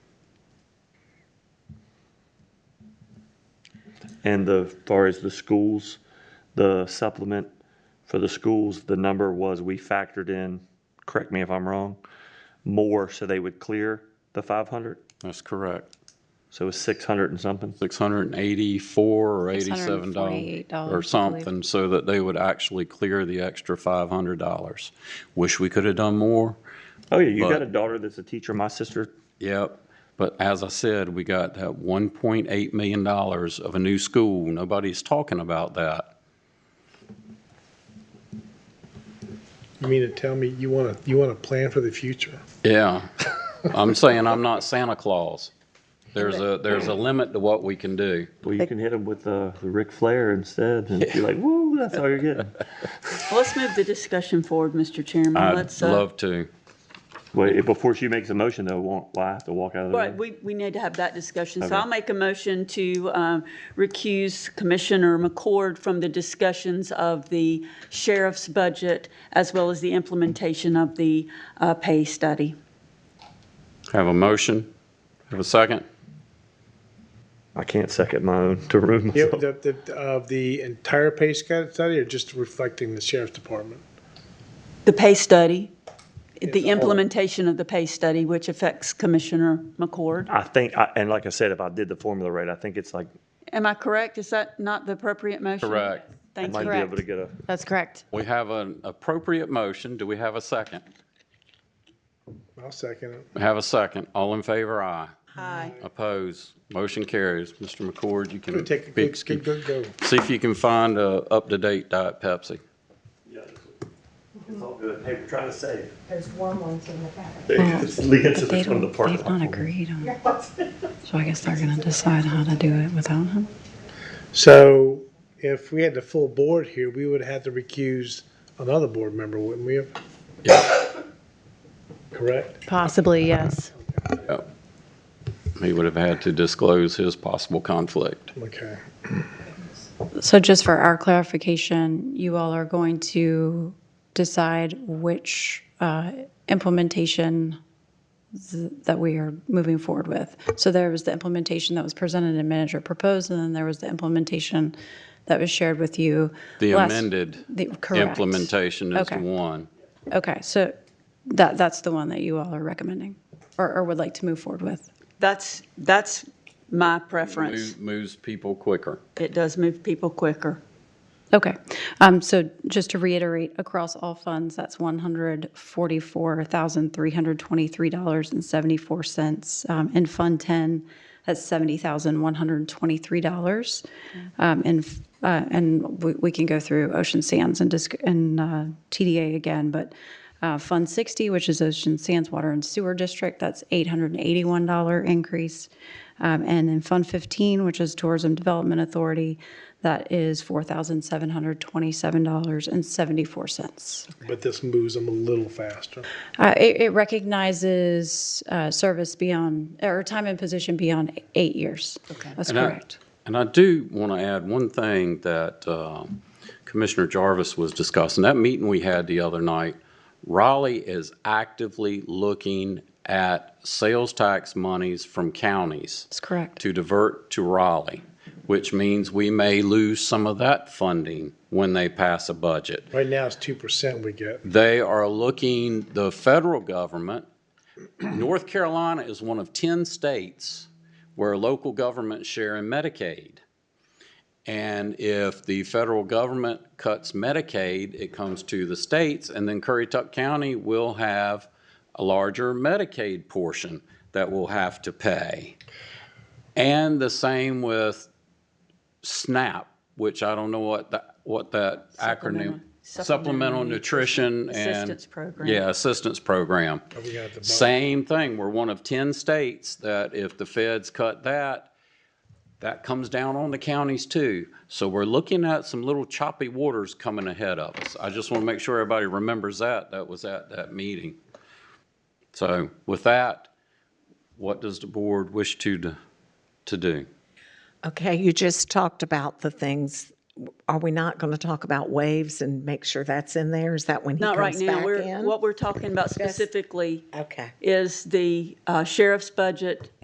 And the, as far as the schools, the supplement for the schools, the number was, we factored in, correct me if I'm wrong, more so they would clear the 500? That's correct. So it was 600 and something? Six hundred and eighty-four or eighty-seven dollars $648, I or believe. something, so that they would actually clear the extra five hundred dollars. Wish we could have done more, Oh, yeah, you got But- a daughter that's a teacher, my sister, yep. But as I said, we got that one point eight million dollars of a new school. Nobody's talking about that. You mean to tell me you want to you want to plan for the future? Yeah, I'm saying I'm not Santa Claus. There's a, there's a limit to what we can do. well, you can hit them with uh, the Ric Flair instead, and you're like, woo, that's all you're getting. Well, Let's move the discussion forward, Mr. Chairman. I'd Let's, uh, love to. Wait, before she makes a motion, though, won't, will I have to walk out of the Right, room? we, we need to have that discussion. So Okay. I'll make a motion to um, recuse Commissioner McCord from the discussions of the sheriff's budget as well as the implementation of the uh, pay study. Have a motion? Have a second? I can't second my own to remove Yep, myself. the, the, of the entire pay scat- study, or just reflecting the sheriff's department? The pay study, It's the all- implementation of the pay study, which affects Commissioner McCord. I think, I- and like I said, if I did the formula right, I think it's like, Am I correct? Is that not the appropriate motion? Correct. I Thank might you. be able correct. to get a, That's correct. We have an appropriate motion. Do we have a second? I'll second it. Have a second. All in favor, aye. Aye. Oppose. Motion carries. Mr. McCord, you can We take a be- good, good, good go. see if you can find a up-to-date Diet Pepsi. It's all good. Hey, we're trying to save. There's warm ones in the back. Leanne said They it's one of the don't, parking they've lot. not agreed on it. So I guess they're going to decide how to do it without him. So if we had the full board here, we would have to recuse another board member, wouldn't we? have? Correct. Possibly, yes. Yep. Oh. He would have had to disclose his possible conflict. Okay. So just for our clarification, you all are going to decide which uh, implementation th- that we are moving forward with. So there was the implementation that was presented and manager proposed, and then there was the implementation that was shared with you. The last- amended the- correct. implementation is the Okay. one. Okay, so that, that's the one that you all are recommending or, or would like to move forward with. That's, that's my preference. Move- Moves people quicker. It does move people quicker. Okay, um, so just to reiterate, across all funds, that's one hundred forty-four thousand, three hundred twenty-three dollars and seventy-four cents. Um, in Fund Ten, that's seventy thousand, one hundred twenty-three dollars. Um, and, f- uh, and we, we can go through Ocean Sands and disc, and, uh, TDA again, but, uh, Fund Sixty, which is Ocean Sands Water and Sewer District, that's eight hundred and eighty-one dollar increase. Um, And then Fund 15, which is Tourism Development Authority, that is $4,727.74. But this moves them a little faster. Uh, It it recognizes uh, service beyond, or time in position beyond eight years. Okay. That's And I- correct. And I do want to add one thing that uh, Commissioner Jarvis was discussing. That meeting we had the other night, Raleigh is actively looking at sales tax monies from counties That's correct. to divert to Raleigh, which means we may lose some of that funding when they pass a budget. Right now, it's two percent we get. They are looking, the federal government, North Carolina is one of 10 states where local governments share in Medicaid. And if the federal government cuts Medicaid, it comes to the states, and then Currituck County will have a larger Medicaid portion that will have to pay. And the same with SNAP, which I don't know what that, what that acronym. Supplemental- Supplemental Supplemental Nutrition and. Assistance Program. Yeah, Assistance Program. We got the bump. Same thing, we're one of 10 states that if the feds cut that, that comes down on the counties too. So we're looking at some little choppy waters coming ahead of us. I just want to make sure everybody remembers that, that was at that meeting. So with that, what does the board wish to, d- to do? Okay, you just talked about the things. Are we not going to talk about waves and make sure that's in there? Is that when he Not right comes now. back We're, in? what we're talking about specifically Okay. is the uh, sheriff's budget